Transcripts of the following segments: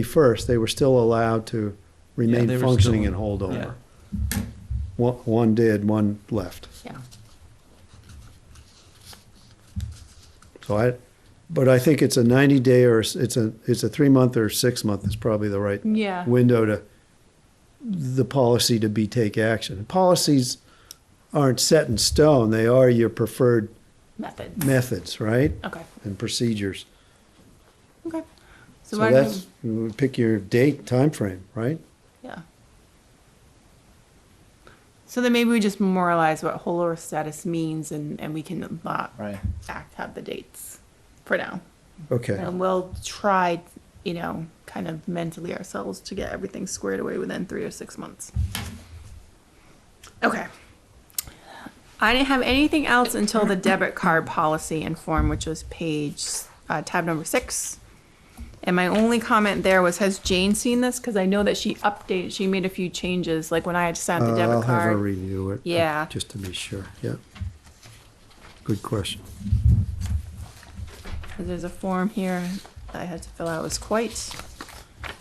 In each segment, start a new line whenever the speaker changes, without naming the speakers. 31st, they were still allowed to remain
they were
functioning
still-
and hold over. One, one did, one left.
Yeah.
So I, but I think it's a 90-day or s- it's a, it's a three-month or six-month is probably the right
Yeah.
window to the policy to be take action. Policies aren't set in stone. They are your preferred
Methods.
methods, right?
Okay.
And procedures.
Okay. So,
So
why don't
that's, you pick your date, time frame, right?
we, yeah. So then maybe we just memorialize what whole earth status means and, and we can not
Right.
act, have the dates for now.
Okay,
And we'll try, you know, kind of mentally ourselves to get everything squared away within three or six months. Okay. I didn't have anything else until the debit card policy and form, which was page, uh, tab number six. And my only comment there was, has Jane seen this? Because I know that she updated, she made a few changes, like when I had sent
Uh,
the
I'll
debit
have her
card.
review it. uh,
Yeah.
Just to be sure, yeah. Good question.
There's a form here that I had to fill out. It was quite,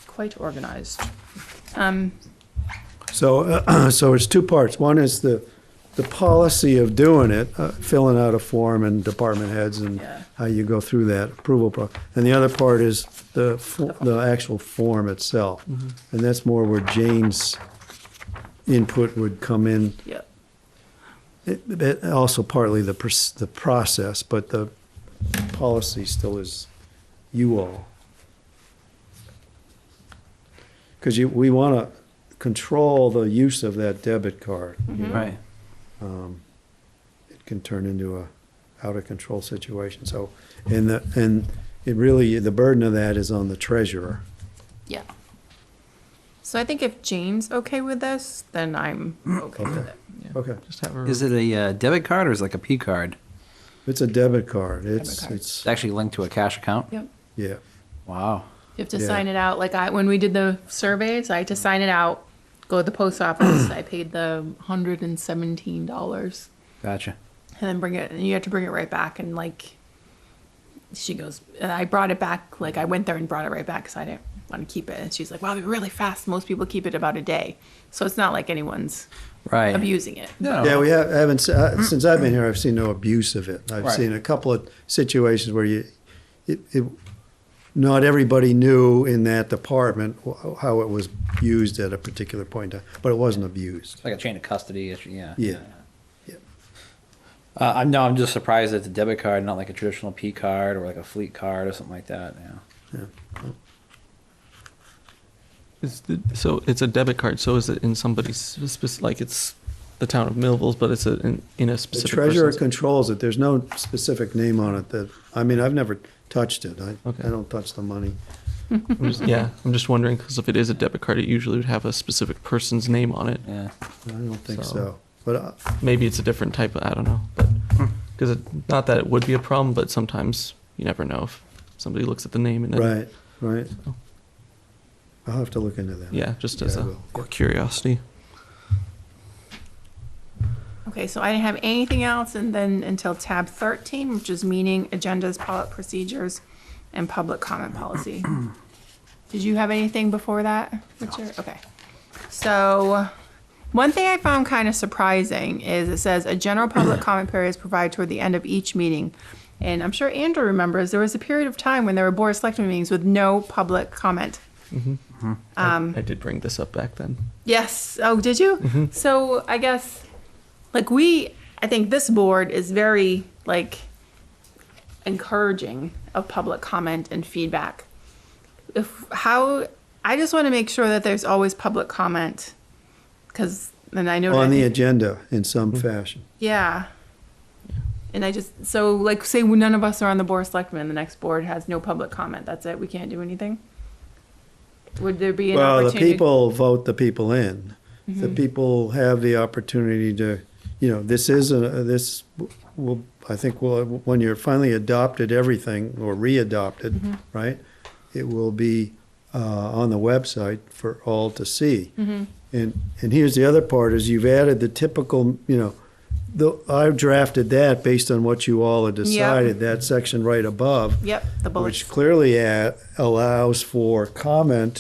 quite organized. Um,
So, uh, so it's two parts. One is the, the policy of doing it, uh, filling out a form and department heads and
Yeah.
how you go through that approval pro. And the other part is the, fo- the actual form itself.
Mm-hmm.
And that's more where Jane's input would come in.
yep.
It- it- Also partly the, pers- the process, but the policy still is you all. Because you, we want to control the use of that debit card.
Right.
It can turn into a out-of-control situation, so, and the, and it really, the burden of that is on the treasurer.
Yeah. So I think if Jane's okay with this, then I'm okay with it.
Okay.
Just have her.
Is it a uh, debit card or is it like a P card?
It's a debit card, it's,
card.
it's,
It's actually linked to a cash account.
Yep.
yeah.
Wow.
You have to
Yeah.
sign it out. Like I, when we did the surveys, I had to sign it out, go to the post office. I paid the hundred and seventeen dollars,
Gotcha.
and then bring it. And you have to bring it right back. And like, she goes, and I brought it back. Like I went there and brought it right back because I didn't want to keep it. And she's like, "Wow, they're really fast. Most people keep it about a day, so it's not like anyone's
Right.
abusing it."
Oh.
No.
Yeah, we have, haven't, se- uh, since I've been here, I've seen no abuse of it. I've
Right.
seen a couple of situations where you, it, it, not everybody knew in that department wh- how it was used at a particular point in time, but it wasn't abused.
It's like a chain of custody issue. Yeah.
Yeah. Yeah.
Uh, I'm no. I'm just surprised that it's a debit card, not like a traditional P card or like a fleet card or something like that. Yeah.
Is the, so it's a debit card. So is it in somebody's specific, like it's the town of Millville's, but it's a, in, in a
The
specific.
treasurer
person's-
controls it. There's no specific name on it that, I mean, I've never touched it. I,
Okay.
I don't touch the money.
I'm just- yeah, I'm just wondering because if it is a debit card, it usually would have a specific person's name on it.
Yeah.
I don't think
So-
so. But uh,
Maybe it's a different type. Of, I don't know, but
Hmm.
because not that it would be a problem, but sometimes you never know if somebody looks at the name and then
Right, right. I'll have to look into that.
yeah, just as
Yeah, I
a
will.
quick curiosity.
Okay, so I didn't have anything else and then until tab thirteen, which is meeting agendas, pol- procedures, and public comment policy. Did you have anything before that, Richard? Okay. So, one thing I found kind of surprising is it says a general public comment period is provided toward the end of each meeting. And I'm sure Andrew remembers, there was a period of time when there were board of selectmen meetings with no public comment.
I, I did bring this up back then.
Yes. Oh, did you?
Mm-hmm.
So I guess, like we, I think this board is very like encouraging of public comment and feedback. If how, I just want to make sure that there's always public comment, because then I know.
On
that-
the agenda in some
Mm-hmm.
fashion.
yeah. And I just so like say when none of us are on the board of selectmen, the next board has no public comment. That's it. We can't do anything. Would there be an
Well, the
opportunity? Mm-hmm.
people vote the people in. The people have the opportunity to, you know, this is a, this will, I think, will, when you're finally adopted everything or
Mm-hmm.
re-adopted, right? It will be, uh, on the website for
Mm-hmm.
all to see. And, and here's the other part is you've added the typical, you know, the, I drafted that based on what you all had decided, that section right above,
Yep, the bullets.
which clearly a- allows for comment